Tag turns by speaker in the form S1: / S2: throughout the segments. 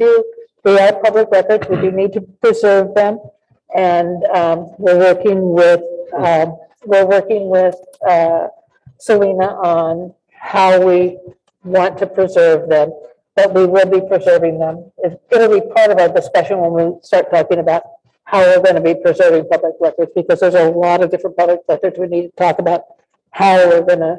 S1: do, they are public records, we do need to preserve them. And um, we're working with, um, we're working with uh, Selena on how we want to preserve them, but we will be preserving them. It's- It'll be part of our discussion when we start talking about how we're going to be preserving public records, because there's a lot of different public records we need to talk about, how we're going to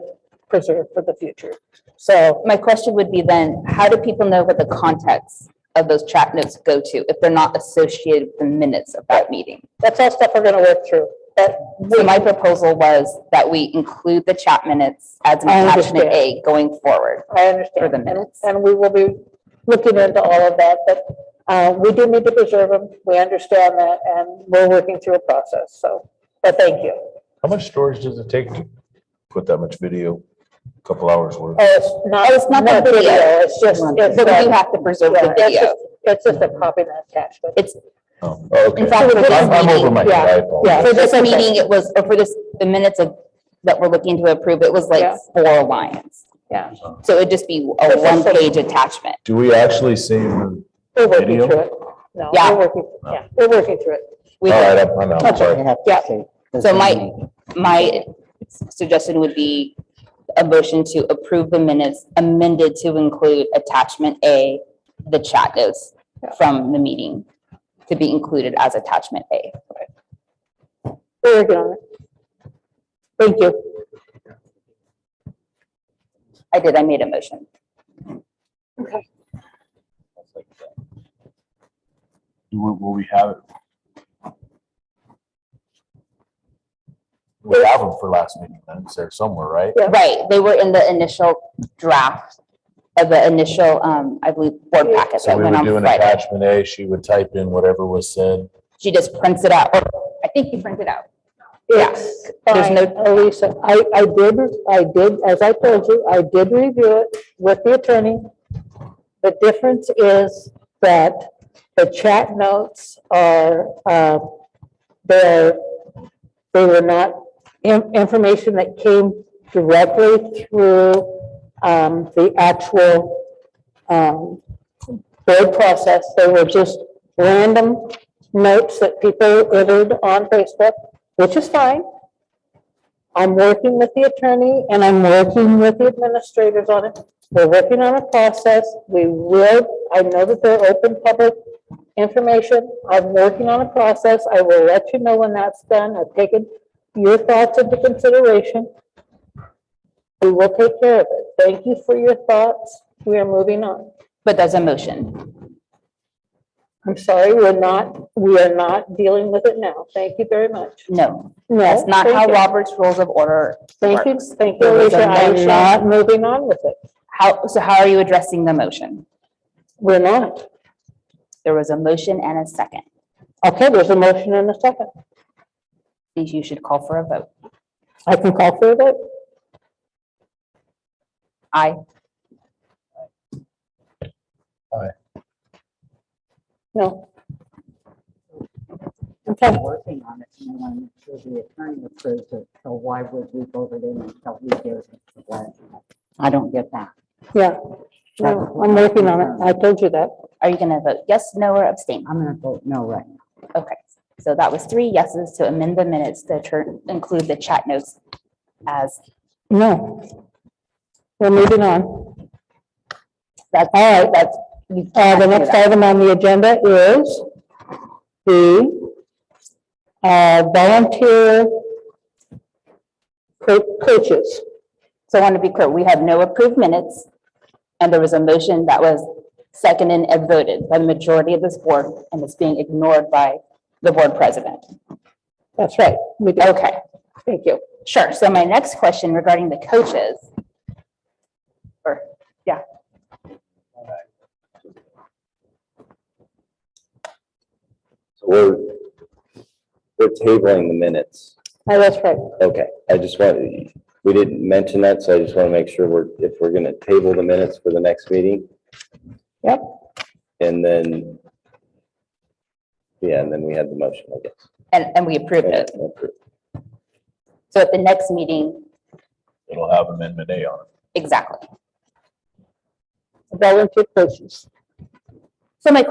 S1: preserve for the future. So
S2: My question would be then, how do people know what the context of those chat notes go to if they're not associated with the minutes of that meeting?
S1: that's all stuff we're going to work through. But
S2: So my proposal was that we include the chat minutes as an
S1: I
S2: attachment
S1: understand.
S2: A going forward
S1: I
S2: for the
S1: understand.
S2: minutes.
S1: And we will be looking into all of that, but uh, we do need to preserve them. We understand that, and we're working through a process, so, but thank you.
S3: How much storage does it take to put that much video? A Couple hours worth?
S1: Oh, It's not,
S2: Oh, it's not the video.
S1: It's just, it's.
S2: So we do
S1: uh,
S2: have to preserve
S1: yeah,
S2: the
S1: it's
S2: video.
S1: just- It's just a copy that's attached. with it.
S2: It's,
S3: Oh, okay.
S2: in fact, for this
S3: I'm I'm over
S2: meeting,
S3: my head. I apologize.
S2: for this
S1: That's okay.
S2: meeting, it was, or for this, the minutes of, that we're looking to approve, it was
S1: Yeah.
S2: like four lines.
S1: Yeah.
S2: So it'd just be
S1: It's
S2: a
S1: just a-
S2: one-page attachment.
S3: Do we actually save the?
S1: We're working
S3: Video?
S1: through it. No,
S2: Yeah.
S1: we're working, yeah, we're working through it.
S2: We
S3: All
S2: could-
S3: right, I'm- I'm out, sorry.
S1: Yeah.
S2: So my, my suggestion would be a motion to approve the minutes amended to include attachment A, the chat notes from the meeting to be included as attachment A.
S1: We're working on it. Thank you.
S2: I did, I made a motion.
S4: Will, will we have it?
S3: We have them for last meeting minutes there somewhere, right?
S2: Right, they were in the initial draft of the initial, um, I believe, board packet
S3: So
S2: that
S3: we
S2: went
S3: would
S2: on
S3: do an
S2: Friday.
S3: attachment A, she would type in whatever was said.
S2: She just prints it out, or I think you printed out. Yeah.
S1: Yes.
S2: There's
S1: Fine,
S2: no-
S1: Elisa, I, I did, I did, as I told you, I did review it with the attorney. The difference is that the chat notes are, uh, they're, they were not in- information that came directly through um, the actual um, board process. They were just random notes that people entered on Facebook, which is fine. I'm working with the attorney and I'm working with the administrators on it. We're working on a process. We will, I know that they're open public information. I'm working on a process. I will let you know when that's done. I've taken your thoughts into consideration. We will take care of it. Thank you for your thoughts. We are moving on.
S2: But there's a motion.
S1: I'm sorry, we're not, we are not dealing with it now. Thank you very much.
S2: No,
S1: No.
S2: that's not
S1: thank
S2: how
S1: you.
S2: Robert's Rules of Order
S1: Thank you,
S2: works.
S1: thank you,
S2: There was
S1: Alicia.
S2: a
S1: I'm
S2: motion.
S1: not moving on with it.
S2: How, so how are you addressing the motion?
S1: We're not.
S2: There was a motion and a second.
S1: Okay, there's a motion and a second.
S2: Please, you should call for a vote.
S1: I can call for a vote.
S2: Aye.
S1: No.
S5: still
S1: Okay,
S5: working on it, and I want to make sure the attorney approves it, so why would we vote it in until we do it? I don't get that.
S1: yeah. No, I'm working on it. I told you that.
S2: Are you gonna vote yes, no, or abstain?
S5: I'm gonna vote no right now.
S2: Okay, so that was three yeses to amend the minutes to turn, include the chat notes as,
S1: No. We're moving on.
S2: that's,
S1: All right.
S2: that's.
S1: Uh, the next item on the agenda is the uh, volunteer co- coaches.
S2: So I want to be clear, we have no approved minutes, and there was a motion that was seconded and voted by the majority of this board, and it's being ignored by the board president.
S1: That's right. We do.
S2: Okay.
S1: Thank you.
S2: Sure. So my next question regarding the coaches. Or, yeah.
S6: So We're, we're tabling the minutes.
S1: Oh, That's right.
S6: Okay, I just want, we didn't mention that, so I just want to make sure we're, if we're going to table the minutes for the next meeting.
S1: Yep.
S6: And then, yeah, and then we had the motion, I guess.
S2: And, and we approved it. So at the next meeting,
S3: It'll have amendment A on it.
S2: exactly.
S1: Volunteer coaches.
S2: So my